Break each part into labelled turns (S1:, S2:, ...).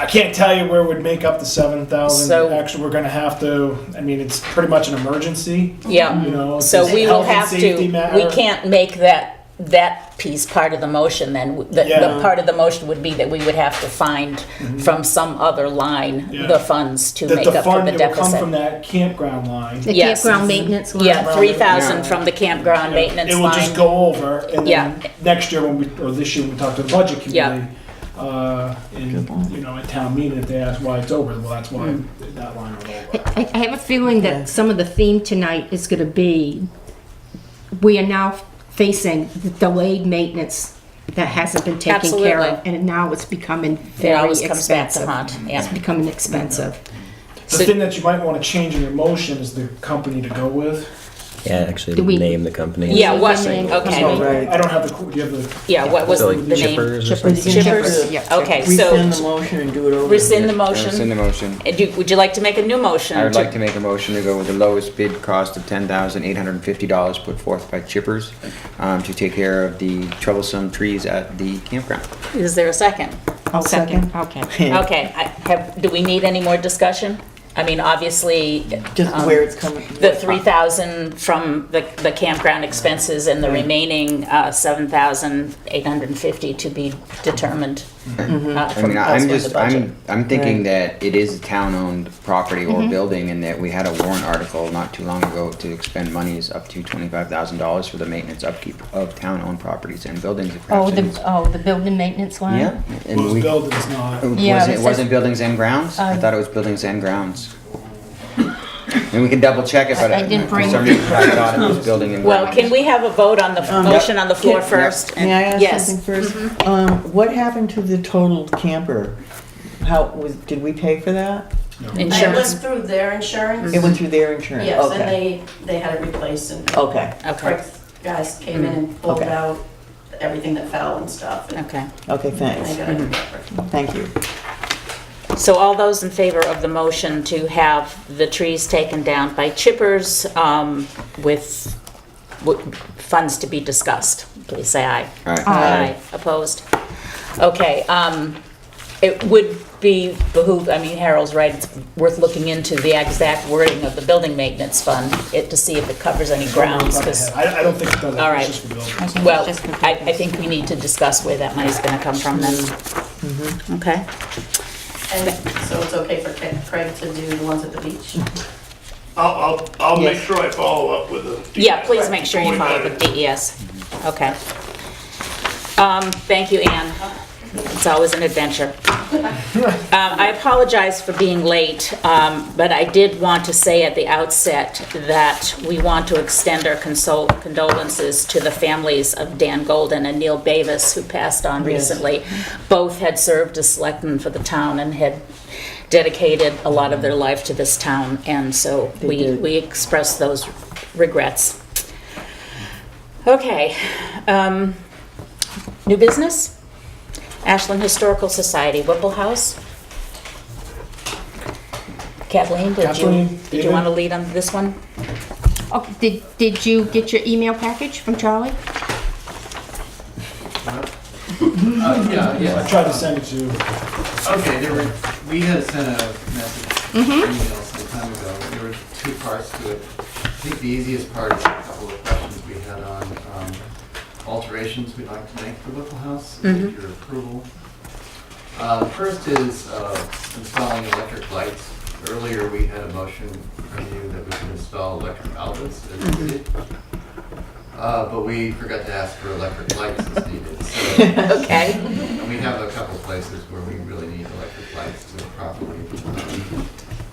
S1: I can't tell you where we'd make up the seven thousand.
S2: So-
S1: Actually, we're gonna have to, I mean, it's pretty much an emergency, you
S2: Yeah,
S1: know.
S2: so
S1: it's a
S2: we will
S1: health and
S2: have to,
S1: safety
S2: we
S1: matter.
S2: can't make that, that piece part of the motion then. The, the
S1: Yeah. Mm-hmm.
S2: part of the motion would be that we would have to find from some other line
S1: Yeah.
S2: the funds to
S1: That
S2: make
S1: the
S2: up for
S1: fund
S2: the
S1: that will come from
S2: deficit.
S1: that campground line.
S3: The
S2: Yes.
S3: campground maintenance line.
S2: Yeah, three thousand
S1: Yeah.
S2: from the campground maintenance
S1: It will just
S2: line.
S1: go over, and then
S2: Yeah.
S1: next year when we, or this year, when we talk to the budget
S2: Yeah.
S1: committee, uh, and, you know, at town meeting, if they ask why it's over, well, that's
S2: Mm.
S1: why that line will go over.
S3: I, I have a feeling that some of the theme tonight is gonna be, we are now facing the delayed maintenance that hasn't been taken care of.
S2: Absolutely.
S3: And now it's becoming
S2: It
S3: very
S2: always comes back to
S3: expensive.
S2: haunt,
S3: It's
S2: yeah.
S3: becoming expensive.
S1: The thing that you might wanna change in your motion is the company to go with.
S4: Yeah, actually,
S3: Do we-
S4: name the company.
S2: Yeah,
S3: Usually
S2: what,
S3: the name-
S2: okay, Oh,
S1: I don't have the, qu- do you have the,
S2: yeah, what was
S4: So
S2: the
S4: like
S2: name?
S4: chippers or
S5: Chippers.
S4: something.
S2: Chippers,
S3: Yeah.
S2: okay,
S5: Rescind the
S2: so
S5: motion and do it over.
S2: rescind the motion.
S6: Rescind the motion.
S2: Uh, do- Would you like to make a new motion?
S6: I would like to make a motion to go with the lowest bid cost of ten thousand eight hundred and fifty dollars put forth by Chippers um, to take care of the troublesome trees at the campground.
S2: Is there a second?
S3: I'll second, okay.
S2: Okay, I have, do we need any more discussion? I mean, obviously,
S5: Just
S2: um,
S5: where it's coming.
S2: the 3,000 from the the campground expenses and the remaining uh, 7,850 to be determined.
S5: Mm-hmm.
S2: uh,
S6: I mean,
S2: from
S6: I- I'm
S2: elsewhere in the
S6: just,
S2: budget.
S6: I'm, I'm thinking that it is a town-owned property or building and that we had a warrant article not too long ago to expend monies up to twenty-five thousand dollars for the maintenance upkeep of town-owned properties and buildings. if
S3: Oh,
S6: perhaps it
S3: the,
S6: is-
S3: oh, the building maintenance line?
S6: Yeah. and
S1: those
S6: we-
S1: buildings not.
S3: Yeah,
S6: was
S3: it
S6: it,
S3: says-
S6: wasn't buildings and grounds? I
S3: Um,
S6: thought it was buildings and grounds. And we can double check it, but uh,
S3: I didn't
S6: for
S3: bring-
S6: some reason I thought it was building and
S2: Well,
S6: grounds.
S2: can we have a vote on the f- motion on the floor
S6: Yep.
S2: first?
S6: Yep.
S2: and-
S6: May
S5: Um, May I ask
S2: Yes.
S5: something first? Um, what happened to the total camper? How, was, did we pay for that?
S7: It went
S2: Insurance,
S7: through their insurance.
S5: It went through their insurance,
S7: Yes, and
S5: okay. Oh,
S7: they, they had it replaced and
S5: Okay, Mm-hmm.
S2: okay,
S7: Craig's guys came in and pulled
S5: Okay.
S7: out everything that fell and stuff. and
S2: okay.
S5: okay, Mm-hmm.
S7: they
S5: thanks,
S7: got it covered.
S5: thank you.
S2: So all those in favor of the motion to have the trees taken down by chippers um, with with funds to be discussed, please say aye.
S6: All right.
S2: Aye. Opposed? Okay, um, it would be behoove, I mean, Harold's right, it's worth looking into the exact wording of the building maintenance fund, it, to see if it covers any grounds, because,
S1: I, I don't think it does,
S2: All right.
S1: it's just for buildings.
S2: well, I, I think we need to discuss where that money's gonna come from then. Okay?
S7: And so it's okay for Craig- Craig to do the ones at the beach?
S8: I'll, I'll, I'll make
S2: Yes.
S8: sure I follow up with the.
S2: Yeah, please make sure you follow with DES. Okay. Um, Thank you, Anne. It's always an adventure. Um, I apologize for being late, um, but I did want to say at the outset that we want to extend our consol- condolences to the families of Dan Golden and Neil Bavis, who passed on recently. Both had served as selectmen for the town and had dedicated a lot of their life to this town, and so
S5: They
S2: we
S5: did.
S2: we express those regrets. Okay, um, new business? Ashland Historical Society, Whipple House. Kathleen, did you,
S1: Kathleen,
S2: did you
S1: David?
S2: want to lead on this one?
S3: Okay, did, did you get your email package from Charlie?
S9: Yeah,
S1: I
S9: yeah.
S1: tried to send it to you.
S9: Okay, there were, we had sent a message, email some time ago. There were two parts to it. I think the easiest part is a couple of questions we had on um, alterations we'd like to make to Whipple House, with your approval. Uh, the First is uh, installing electric lights. Earlier, we had a motion from you that we could install electric outlets as needed. Uh, But we forgot to ask for electric lights as needed, so
S2: Okay,
S9: And we have a couple places where we really need electric lights to properly um,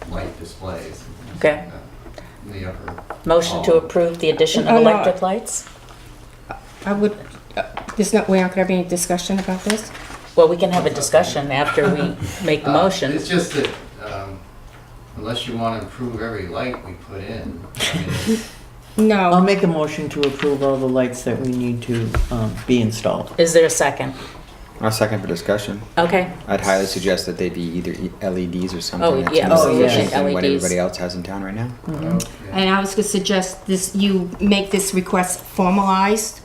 S9: light displays. and things like
S2: Okay.
S9: that In the upper. uh,
S2: motion to approve the addition
S3: Oh,
S2: of
S3: no.
S2: electric lights?
S3: I would, uh, there's no, we're not gonna have any discussion about this?
S2: Well, we can have a discussion after we make the
S9: Uh,
S2: motion.
S9: It's just that um, unless you want to improve every light we put in, I mean, it's-
S3: No.
S5: I'll make a motion to approve all the lights that we need to, um, be installed.
S2: Is there a second?
S6: I'll second for discussion.
S2: Okay,
S6: I'd highly suggest that they be either e- LEDs or
S2: Oh,
S6: something that's
S2: yeah,
S6: more
S5: Oh, yeah.
S6: efficient than what
S2: LEDs.
S6: everybody else has in town right now.
S9: Okay.
S3: And I was gonna suggest this, you make this request formalized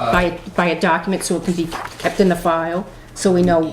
S9: Uh,
S3: by, by a document so it can be kept in the file, so we know